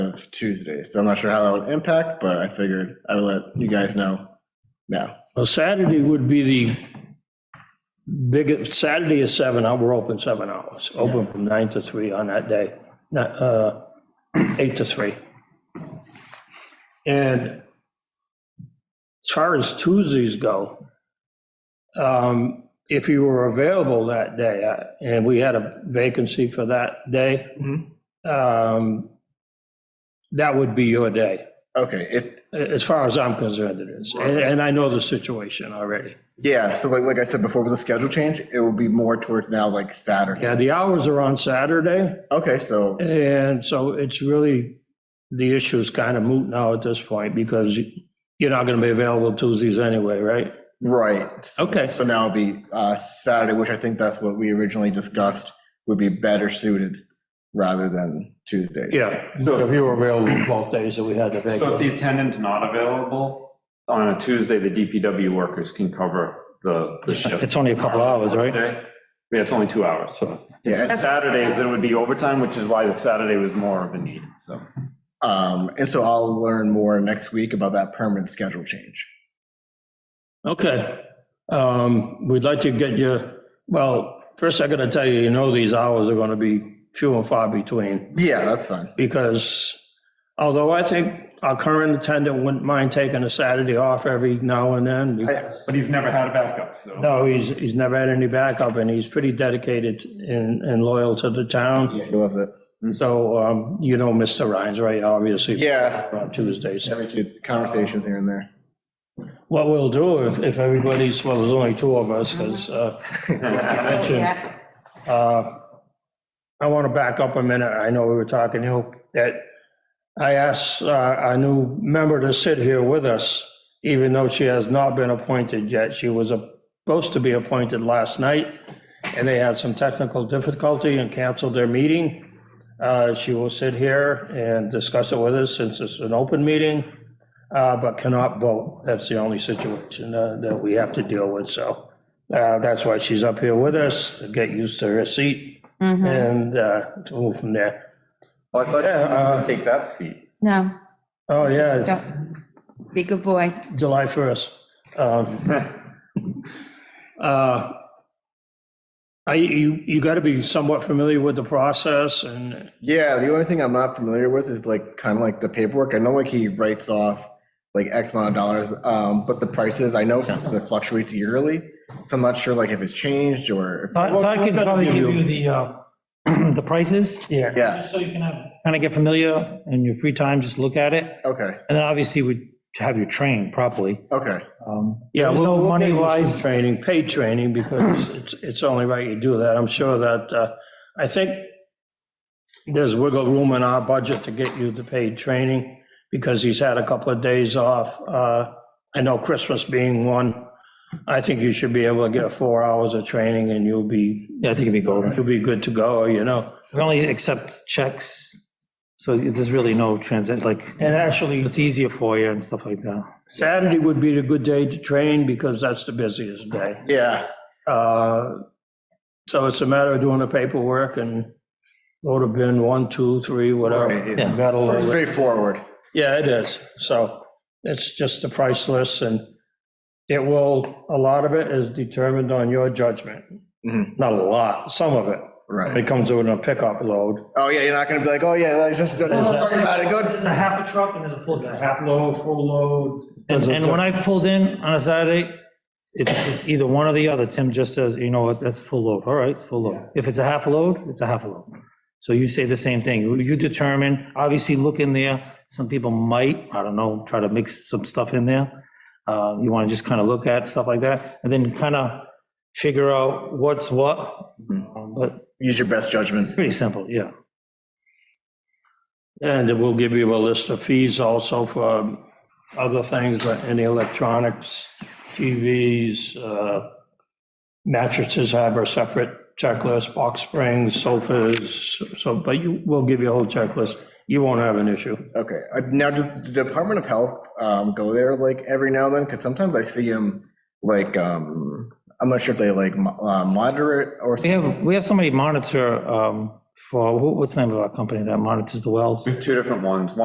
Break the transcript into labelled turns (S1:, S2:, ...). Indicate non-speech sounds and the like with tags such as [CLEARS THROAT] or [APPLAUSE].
S1: of Tuesday. So I'm not sure how that would impact, but I figured I would let you guys know now.
S2: Well, Saturday would be the biggest, Saturday is seven, hour- we're open seven hours, open from nine to three on that day, not, uh, eight to three. And as far as Tuesdays go, um, if you were available that day, uh, and we had a vacancy for that day, um, that would be your day.
S1: Okay, it,
S2: As far as I'm concerned, it is. And and I know the situation already.
S1: yeah, so like, like I said before, with the schedule change, it will be more towards now like Saturday.
S2: Yeah, the hours are on Saturday,
S1: Okay, so,
S2: and so it's really, the issue is kind of moot now at this point because you're not going to be available Tuesdays anyway, right?
S1: right. So-
S2: Okay,
S1: So now it'll be uh, Saturday, which I think that's what we originally discussed would be better suited rather than Tuesday.
S2: yeah.
S3: So-
S2: If you were available both days that we had the
S3: So if
S2: vacancy.
S3: the attendant's not available, on a Tuesday, the DPW workers can cover the, the shift.
S2: It's only a couple hours, right?
S3: Yeah, it's only two hours. It's
S1: Yeah.
S3: Saturdays, it would be overtime, which is why the Saturday was more of a need, so.
S1: Um, and so I'll learn more next week about that permanent schedule change.
S2: Okay. Um, We'd like to get you, well, first I got to tell you, you know these hours are going to be few and far between.
S1: Yeah, that's fine.
S2: because although I think our current attendant wouldn't mind taking a Saturday off every now and then. because-
S3: But he's never had a backup, so.
S2: No, he's, he's never had any backup and he's pretty dedicated and, and loyal to the town.
S1: Yeah, he loves it.
S2: So, um, you know, Mr. Rhines, right, obviously.
S1: Yeah.
S2: On Tuesdays.
S1: Every kid, conversations here and there.
S2: What we'll do if, if everybody's, well, there's only two of us, because, uh,
S4: Yeah,
S2: I want to back up a minute. I know we were talking, you know, that I asked uh, our new member to sit here with us, even though she has not been appointed yet. She was supposed to be appointed last night, and they had some technical difficulty and canceled their meeting. Uh, She will sit here and discuss it with us since it's an open meeting, uh, but cannot vote. That's the only situation uh, that we have to deal with, so uh, that's why she's up here with us, to get used to her seat and uh, to move from there.
S3: I thought
S2: Yeah, uh,
S3: you could take that seat.
S4: no,
S2: Oh, yeah,
S4: don't, be a good boy.
S2: July 1st. Um, [LAUGHS] uh, I, you, you got to be somewhat familiar with the process and,
S1: Yeah, the only thing I'm not familiar with is like kind of like the paperwork. I know like he writes off like X amount of dollars, um, but the prices I know sometimes it fluctuates yearly, so I'm not sure like if it's changed or if,
S5: So so I could
S2: Well,
S5: probably
S2: give
S5: give
S2: you-
S5: you the, uh, [CLEARS THROAT] the prices,
S2: yeah.
S1: yeah,
S5: just so you can have, kind of get familiar in your free time, just look at it.
S1: okay,
S5: And then obviously we'd have you trained properly.
S1: okay,
S5: Um,
S2: Yeah,
S5: There's
S2: we'll-
S5: no
S2: we'll
S5: money
S2: give you some
S5: wise-
S2: Training, paid training, because it's, it's only right you do that. I'm sure that, uh, I think there's wiggle room in our budget to get you the paid training, because he's had a couple of days off. Uh, I know Christmas being one, I think you should be able to get four hours of training and you'll be,
S5: Yeah, I think it'd be golden.
S2: you'll be good to go, you know?
S5: We only accept checks, so there's really no transit, like,
S2: And actually,
S5: it's easier for you and stuff like that.
S2: Saturday would be the good day to train, because that's the busiest day.
S1: yeah,
S2: Uh, So it's a matter of doing the paperwork and go to bin one, two, three, whatever.
S1: Right,
S5: yeah.
S2: Metal or-
S1: straightforward.
S2: Yeah, it is. So it's just the price list and it will, a lot of it is determined on your judgment.
S1: Mhm.
S2: Not a lot, some of it.
S1: Right.
S2: It comes with a pickup load.
S1: Oh yeah, you're not gonna be like, oh yeah, that's just don't talk about it. Good.
S5: a half a truck and there's a full
S2: Half load, full load.
S5: And, and when I pulled in on a Saturday, it's, it's either one or the other. Tim just says, you know what, that's full load. All right, it's full load. If it's a half load, it's a half load. So you say the same thing. You determine, obviously look in there. Some people might, I don't know, try to mix some stuff in there. Uh, You want to just kind of look at stuff like that and then kind of figure out what's what. Um, But
S1: Use your best judgment.
S5: pretty simple, yeah.
S2: And it will give you a list of fees also for um, other things, like any electronics, TVs, uh, mattresses have a separate checklist, box springs, sofas, so, but you, we'll give you a whole checklist. You won't have an issue.
S1: Okay, uh, now does the Department of Health um, go there like every now and then? Because sometimes I see them like um, I'm not sure if they like mo- uh, moderate or
S5: We have, we have somebody monitor um, for, who- what's the name of our company that monitors the wells?
S3: We have two different ones.